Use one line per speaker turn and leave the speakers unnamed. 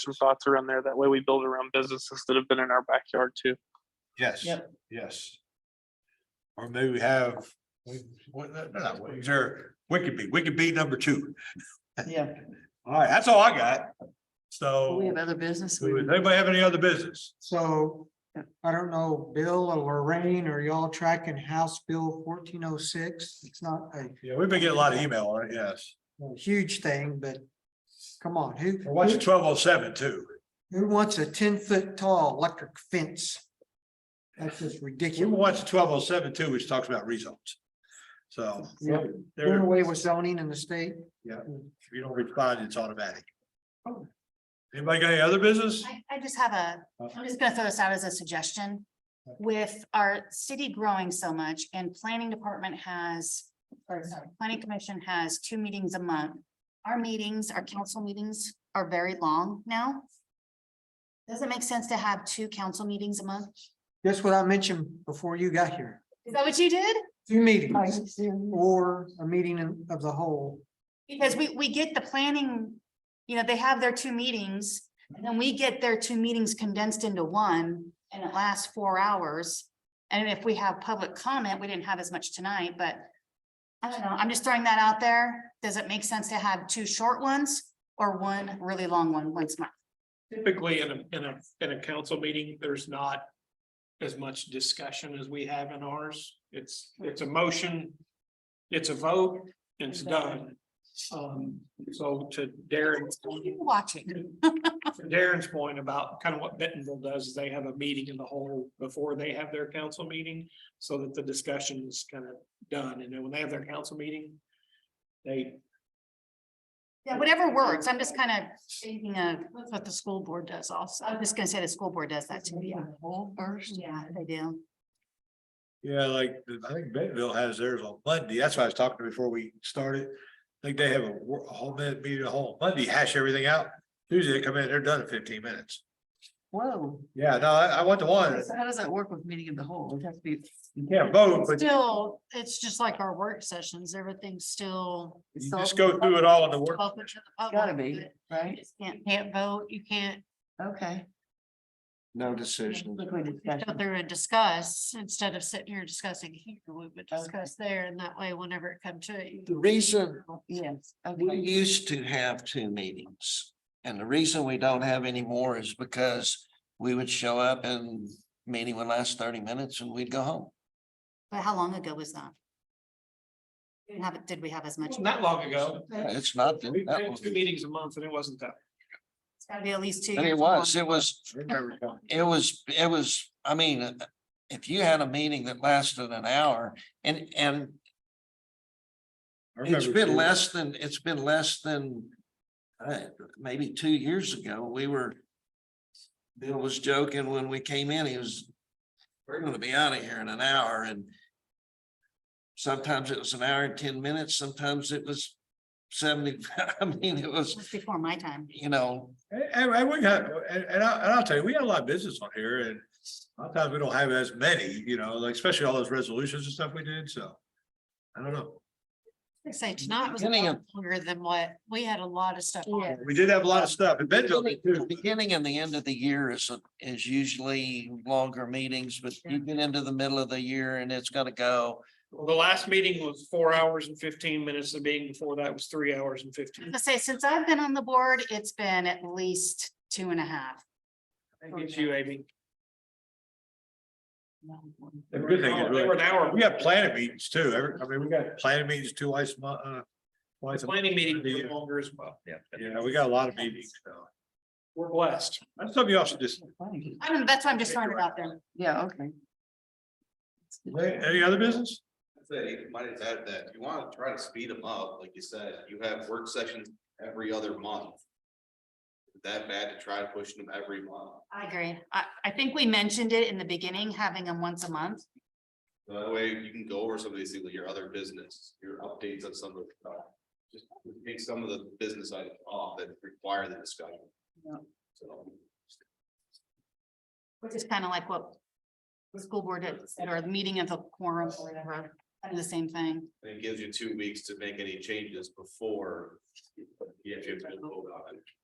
some thoughts around there. That way we build around businesses that have been in our backyard too.
Yes,
Yep.
yes. Or maybe we have, we, what, no, no, no, is there, we could be, we could be number two.
Yeah,
All right, that's all I got.
we
So,
have other business.
does anybody have any other business?
So I don't know, Bill or Lorraine, are y'all tracking House Bill fourteen oh six? It's not a
Yeah, we've been getting a lot of email on it, yes.
a huge thing, but come on, who,
And What's
who-
twelve oh seven too?
who wants a ten foot tall electric fence? That's just
We
ridiculous.
watched twelve oh seven too, which talks about results. So.
Yeah.
There,
Doing away with zoning in the state?
if you don't respond, it's automatic.
Oh.
Anybody got any other business?
I, I just have a, I'm just gonna throw this out as a suggestion. With our city growing so much and planning department has, or sorry, planning commission has two meetings a month. Our meetings, our council meetings are very long now. Does it make sense to have two council meetings a month?
That's what I mentioned before you got here.
Is that what you did?
Two meetings or a meeting in- of the whole.
Because we, we get the planning, you know, they have their two meetings, and then we get their two meetings condensed into one, and it lasts four hours. And if we have public comment, we didn't have as much tonight, but I don't know, I'm just throwing that out there. Does it make sense to have two short ones or one really long one once a month?
typically in a, in a, in a council meeting, there's not as much discussion as we have in ours. It's, it's a motion, it's a vote, and it's done. Um, so to Darren's,
You're Watching,
to Darren's point about kind of what Bentonville does, is they have a meeting in the whole before they have their council meeting, so that the discussion is kind of done, and then when they have their council meeting, they,
Yeah, whatever works. I'm just kind of thinking of what the school board does also. I'm just gonna say the school board does that too, yeah.
first.
Yeah, they do.
Yeah, like, I think Bentonville has theirs on Monday. That's what I was talking to before we started. I think they have a wor- a whole minute meeting, a whole Monday, hash everything out. Tuesday, they come in, they're done in fifteen minutes.
Whoa,
Yeah, no, I, I went to one.
so how does that work with meeting of the whole? It has to be.
You can't vote, but
Still, it's just like our work sessions, everything's still.
you just go through it all in the work.
Welcome to the public,
Gotta be,
but you
right?
just Can't, can't vote, you can't
Okay.
No decision.
Quickly
go
discussion.
through and discuss, instead of sitting here discussing here, we would discuss there, and that way, whenever it come to it. you-
The reason
Yes,
we
okay.
used to have two meetings and the reason we don't have any more is because we would show up and meeting would last thirty minutes and we'd go home.
But how long ago was that? We didn't have, did we have as much?
not that long ago.
It's not. that-
We've
that
had
was-
two meetings a month, and it wasn't that.
It's gotta be at least two.
But it
years
was,
long.
it was, it was, it was, I mean, if you had a meeting that lasted an hour and, and it's been less than, it's been less than uh, maybe two years ago, we were Bill was joking when we came in, he was, we're gonna be out of here in an hour and sometimes it was an hour and ten minutes, sometimes it was seventy, I mean, it
It
was,
was before my time.
you know,
And, and- and we got, and, and I, and I'll tell you, we got a lot of business on here and sometimes we don't have as many, you know, like especially all those resolutions and stuff we did, so. I don't know.
I say tonight was a
Beginning
lot longer than what, we had a lot of stuff on.
We did have a lot of stuff. and Bentonville did
The
too.
beginning and the end of the year is, is usually longer meetings, but you get into the middle of the year and it's gonna go.
Well, the last meeting was four hours and fifteen minutes. The meeting before that was three hours and fifteen.
I say, since I've been on the board, it's been at least two and a half.
Thank you, to you, Amy.
The good thing is
They were an hour.
We have planning meetings too. Every- I mean, we got planning meetings twice a month, uh, twice a month.
Planning meeting was longer as well. Yeah.
Yeah, we got a lot of meetings, so.
We're blessed.
That's something you also just,
I don't, that's why I'm just throwing it out there.
Yeah, okay.
any other business?
I'd say, you might just add that, you wanna try to speed them up, like you said, you have work sessions every other month. Is That bad to try pushing them every month,
I agree. I, I think we mentioned it in the beginning, having them once a month.
that way you can go over some of these things, with your other business, your updates on some of the stuff. Just take some of the business items off that require the discussion.
Yeah.
So.
Which is kind of like what the school board did, or the meeting of the quorum or whatever, kind of the same thing.
And it gives you two weeks to make any changes before. You have to. vote on it.